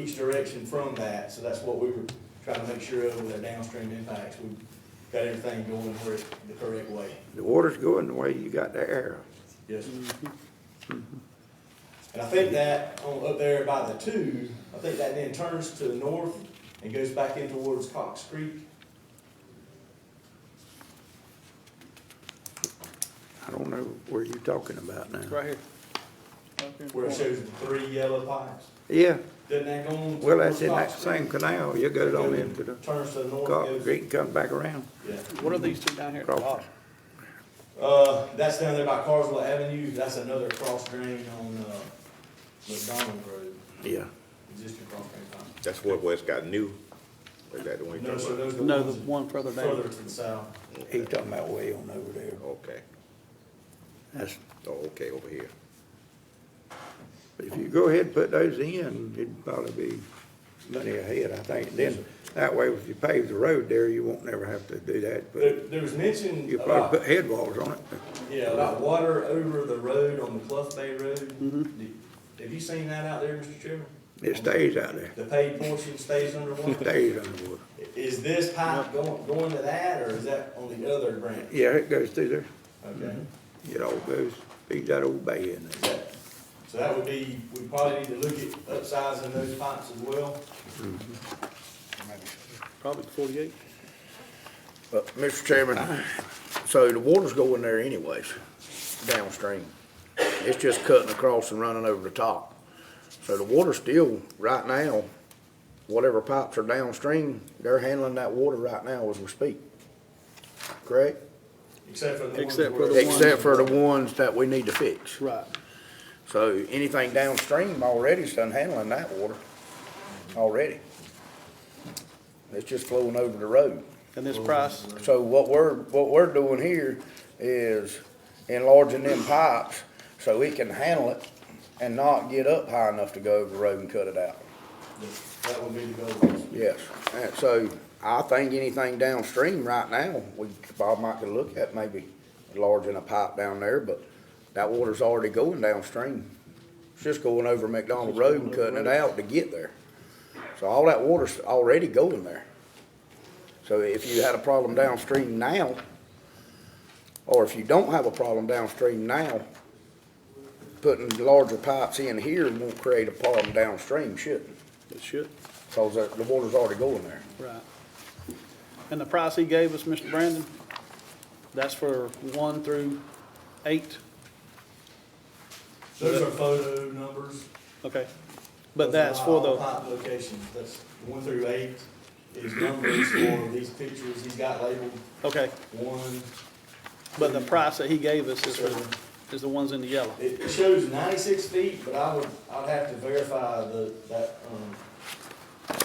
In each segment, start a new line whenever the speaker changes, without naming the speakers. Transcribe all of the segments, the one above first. each direction from that, so that's what we were trying to make sure of with our downstream impacts. We've got everything going where it's the correct way.
The water's going the way you got the air.
Yes. And I think that, on- up there by the two, I think that then turns to the north and goes back in towards Cox Creek.
I don't know where you're talking about now.
Right here. Right here in the
Where it
corner.
shows the three yellow pipes.
Yeah,
Doesn't that go on?
well, that's in that
towards Cox
same canal. You go
Creek?
down into the
Turns to the north.
Cox
goes-
Creek, and come back around.
Yeah.
What are these two down here at the
Crawford.
bottom?
Uh, that's down there by Carswell Avenue. That's another cross drain on, uh, McDonald Road,
Yeah.
existing cross drain pipe.
That's what, where it's got new, or is that the one you're
No, sir,
talking about?
those are the
No,
ones
the one further
further
down.
to the south.
He talking about way on over there.
Okay,
That's,
oh, okay, over here.
if you go ahead and put those in, it'd probably be money ahead, I think. Then, that way, if you pave the road there, you won't never have to do that,
There,
but
there was mention
you'll
about
probably put head walls on it.
Yeah, about water over the road on McCluff Bay Road.
Mm-hmm.
Do- Have you seen that out there, Mr. Chairman?
It stays out there,
The paved portion stays
It
underwater?
stays underwater.
Is this pipe going, going to that, or is that on the other branch?
Yeah, it goes through there.
Okay.
Mm-hmm. It all goes, feeds that old bay in
Is
there.
that- So that would be, we probably need to look at upsizing those pipes as well.
Probably the forty-eight.
Uh, Mr. Chairman, so the water's going there anyways, downstream. It's just cutting across and running over the top. So the water's still, right now, whatever pipes are downstream, they're handling that water right now as we speak. Correct?
Except for the ones
Except for
where-
the ones-
Except for the ones that we need to fix.
Right.
So anything downstream already is done handling that water, already. It's just flowing over the road.
And this price,
So what we're, what we're doing here is enlarging them pipes so it can handle it and not get up high enough to go over the road and cut it out.
That would be the goal.
Yes, and so I think anything downstream right now, we, Bob might could look at maybe enlarging a pipe down there, but that water's already going downstream. It's just going over McDonald Road and cutting it out to get there. So all that water's already going there. So if you had a problem downstream now, or if you don't have a problem downstream now, putting larger pipes in here won't create a problem downstream, shouldn't?
it should,
Cause the, the water's already going there.
right. And the price he gave us, Mr. Brandon, that's for one through eight,
Those are photo numbers.
okay? But
Those are
that's
not
for
all
the,
Pipe locations, that's one through eight is numbers for these pictures. He's got labeled
okay,
one,
but the price that he gave us is
Sure.
for, is the ones in the yellow.
It shows ninety-six feet, but I would, I'd have to verify the, that, um,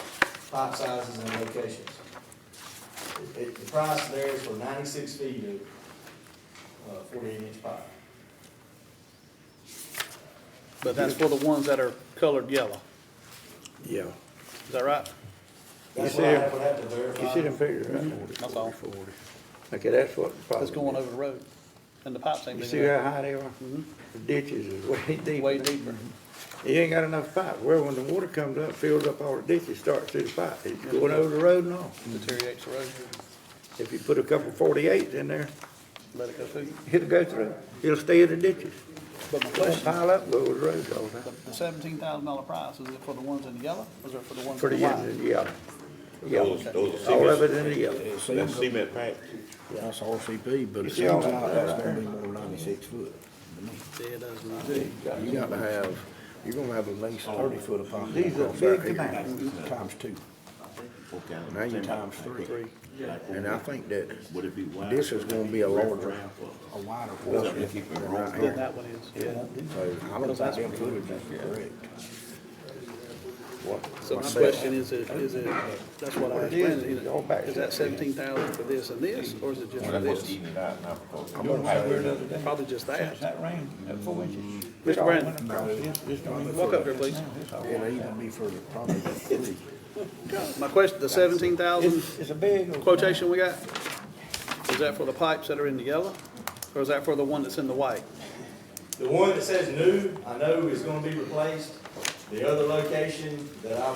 pipe sizes and locations. It- It, the price there is for ninety-six feet of, uh, forty-eight inch pipe.
But that's for the ones that are colored yellow,
Yeah.
is that right?
That's
see
what I
it?
would have to
You see them
verify.
figures, right?
That's all.
Okay, that's what.
That's going over the road, and the pipes ain't
You
big
see
enough.
how high they are? The ditches is way deep.
way deeper.
You ain't got enough pipe. Well, when the water comes up, fills up all the ditches, starts through the pipe. It's going over the road and all.
Deteriorates the road,
If you put a couple forty-eights in there,
let it go through.
it'll go through. It'll stay in the ditches.
But my
It'll
question,
pile up, go over the road all the time.
the seventeen thousand dollar price, is it for the ones in yellow, or is it for the ones
For the
in white?
years, yeah. Yeah,
Those, those are
all of
cement,
it in the yellow.
that's cement pipe.
That's RCP, but it
Yeah,
seems
all
like
right.
that's gonna be more than ninety-six foot.
It does not.
You gotta have, you're gonna have at least thirty foot of pipe.
These are
across that
big
area.
dimensions.
Times two, now you times three. And I think that
Would it be wide?
this is gonna be a larger, a wider portion than right
Then
here.
that one is, yeah.
So I don't think them footage is correct.
So my question is, it- is it, that's what I was planning, is
All back.
it- is that seventeen thousand for this and this, or is it just for this?
it out now.
I'm gonna have it another day.
Probably just
Since
that.
that rain, that four inches.
Mr. Brandon. Walk
Walk
up here, please.
It'll even be for the, probably the three.
My question, the seventeen thousand
It's, it's a big. old-
quotation we got, is that for the pipes that are in the yellow, or is that for the one that's in the white?
The one that says new, I know is gonna be replaced. The other location that I